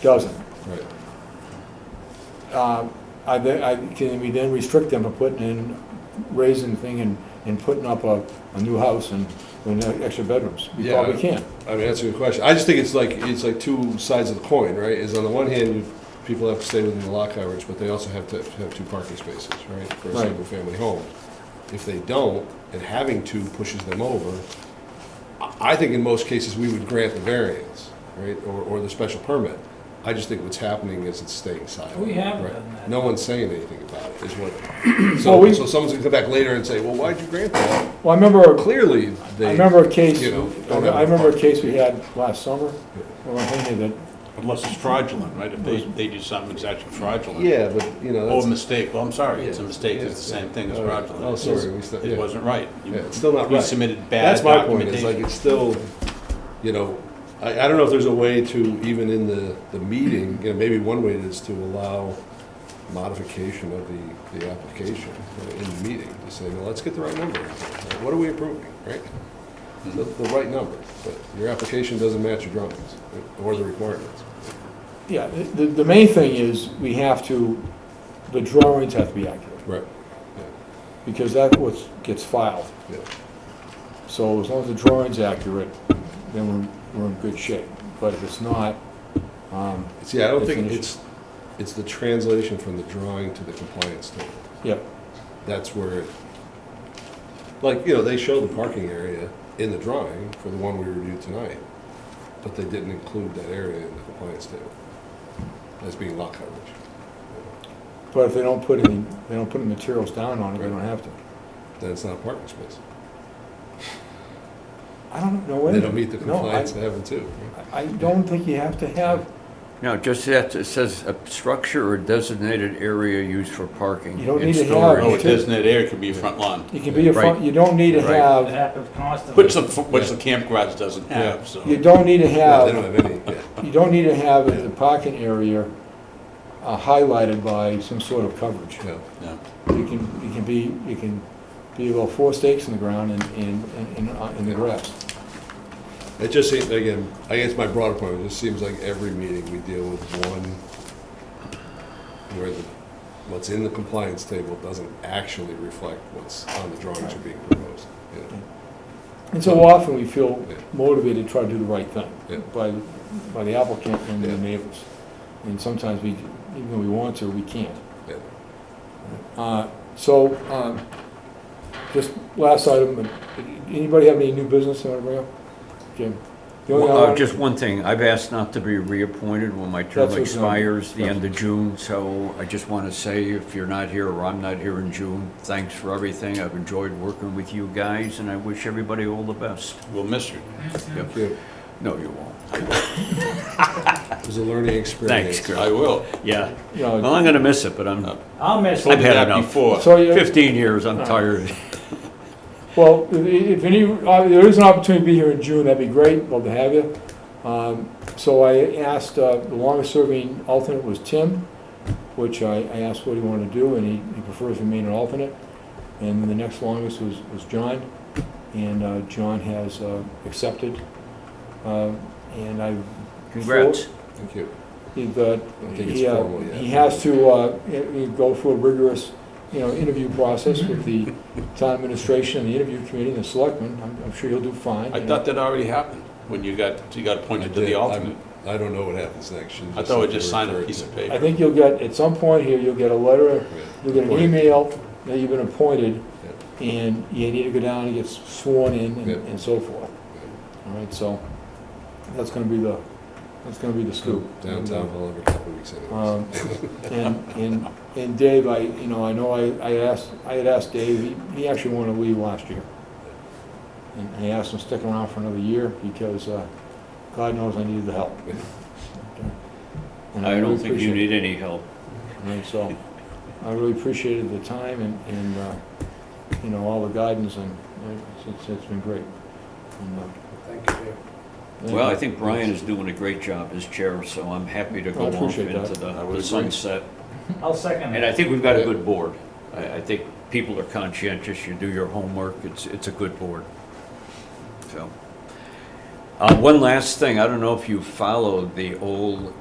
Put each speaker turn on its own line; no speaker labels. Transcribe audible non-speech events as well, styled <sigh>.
doesn't.
Right.
Um, I, then- I, can we then restrict them from putting in, raising thing and, and putting up a, a new house and, and extra bedrooms? We
Yeah.
probably can't.
I mean, that's a good question. I just think it's like, it's like two sides of the coin, right? Is on the one hand, you- people have to stay within the lot coverage, but they also have to have two parking spaces, right? For a
Right.
single-family home. If they don't, and having two pushes them over, I- I think in most cases, we would grant the variance, right? Or, or the special permit. I just think what's happening is it's staying silent.
We haven't
right?
done that.
No one's saying anything about it, is what,
Well,
so,
we-
so someone's gonna come back later and say, well, why'd you grant that?
Well, I remember,
Clearly, they.
I remember a case,
you know,
I
don't have
I remember a
parking
case we
space.
had last summer, or I think that,
Unless it's fraudulent, right? If they, they do something exactly fraudulent.
Mm. Yeah, but, you know,
Or a
that's,
mistake, well, I'm sorry, it's a
Yeah.
mistake, it's the
Yeah.
same thing as
All right.
fraudulent.
Oh, sorry, we said- yeah.
It wasn't right. You-
yeah, it's still not
You
right.
submitted bad
That's my point, it's like,
documentation.
it's still, you know, I, I don't know if there's a way to, even in the, the meeting, you know, maybe one way is to allow modification of the, the application you know, in the meeting, to say, well, let's get the right number. What are we approving, right? The,
Mm-hmm.
the right number, but your application doesn't match your drawings, or the requirements.
yeah, the, the main thing is, we have to, the drawings have to be accurate,
Right.
because that what gets filed.
Yeah,
So as long as the drawing's accurate, then we're, we're in good shape. But if it's not, um,
see, I don't think
Definition.
it's, it's the translation from the drawing to the compliance table.
yeah,
that's where, it- like, you know, they show the parking area in the drawing for the one we reviewed tonight, but they didn't include that area in the compliance table as being lot coverage.
but if they don't put any, they don't put any materials down on it, they don't have to.
Then it's not a parking space.
I don't know.
They
any-
don't meet the
no, I-
compliance to have them too.
I don't think you have to have,
No, just that, it says a structure or designated area used for parking.
You don't
and
need to have-
storage.
Oh, it doesn't, that area could be a front lawn,
you can be a front,
Right.
you don't need to
Right.
It
have,
happens constantly.
which the, which the camp garage doesn't have, so.
you don't need to
Yeah, They don't
have,
have any, yeah.
you don't need to have the parking area uh, highlighted by some sort of coverage.
no.
no.
You can, you can be, you can be about four stakes in the ground and, and, and- and, uh, in the grass.
It just seems, again, I guess my broader point, it just seems like every meeting we deal with one where the, what's in the compliance table doesn't actually reflect what's on the drawings are being proposed. you know?
And so often we feel
Yeah.
motivated to try to do the right thing
Yeah.
by, by the applicant and the
Yeah.
neighbors. And sometimes we, even though we want to, we can't.
Yeah.
Uh, So, um, just last item, anybody have any new business they want to bring up? Jim? The only
Well, uh,
other-
Just one thing, I've asked not to be reappointed when my term
That's what's on-
expires the end of June, so I just want to say, if you're not here or I'm not here in June, thanks for everything. I've enjoyed working with you guys, and I wish everybody all the best.
We'll miss you.
Thank you.
No, you won't.
It was a learning experience.
Thanks, Chris.
I will.
Yeah.
you know,
Well, I'm going to miss it, but I'm,
I'll miss
Told
it.
you
had
that
enough.
before.
So, you-
15 years, I'm tired.
well, i- i- if any, uh, there is an opportunity to be here in June, that'd be great, love to have you. Um, So I asked, uh, the longest-serving alternate was Tim, which I I asked what he wanted to do, and he he prefers to remain an alternate. And the next longest was was John, and uh, John has uh, accepted. Um, And I
Congrats.
Thank you.
He's, uh,
I think it's
he, uh,
formal, yeah.
he has to, uh, he- he go through a rigorous, you know, interview process
Mm-hmm.
with the town administration and the interview committee and the selectmen. I'm, I'm sure he'll do fine.
I
you
thought
know.
that already happened, when you got, you got
I
appointed to
did.
the alternate.
I'm- I don't know what happens next. You
I thought we
said
just
you
signed a
referred
piece
to-
of
I
paper.
think you'll get, at some point here, you'll get a letter,
Yeah.
you'll get an
Appointed.
email that you've been appointed, and you need to go down and get sworn in and-
Yeah.
and so forth.
Yeah.
All right, so that's gonna be the, that's gonna be the scoop.
Downtown hall every couple of weeks anyways.
Um, And, and, and Dave, I, you know, I know I, I asked, I had asked Dave, he- he actually wanted to leave last year. And I asked him to stick around for another year because, uh, God knows I needed the help.
<laughs>
And
I
really
don't think you
appreciate
need any help.
it. And so, I really appreciated the time and, and, uh, you know, all the guidance and it's- it's, it's been great. And, uh,
Thank you.
thank
Well,
you.
I think Brian is doing a great job as chair, so I'm happy to
I
go off
appreciate that.
into the
I would
the
agree.
sunset.
I'll second
And I
that.
think we've got a good board. I, I think people are conscientious, you do your homework, it's, it's a good board. So. Uh, one last thing, I don't know if you followed the old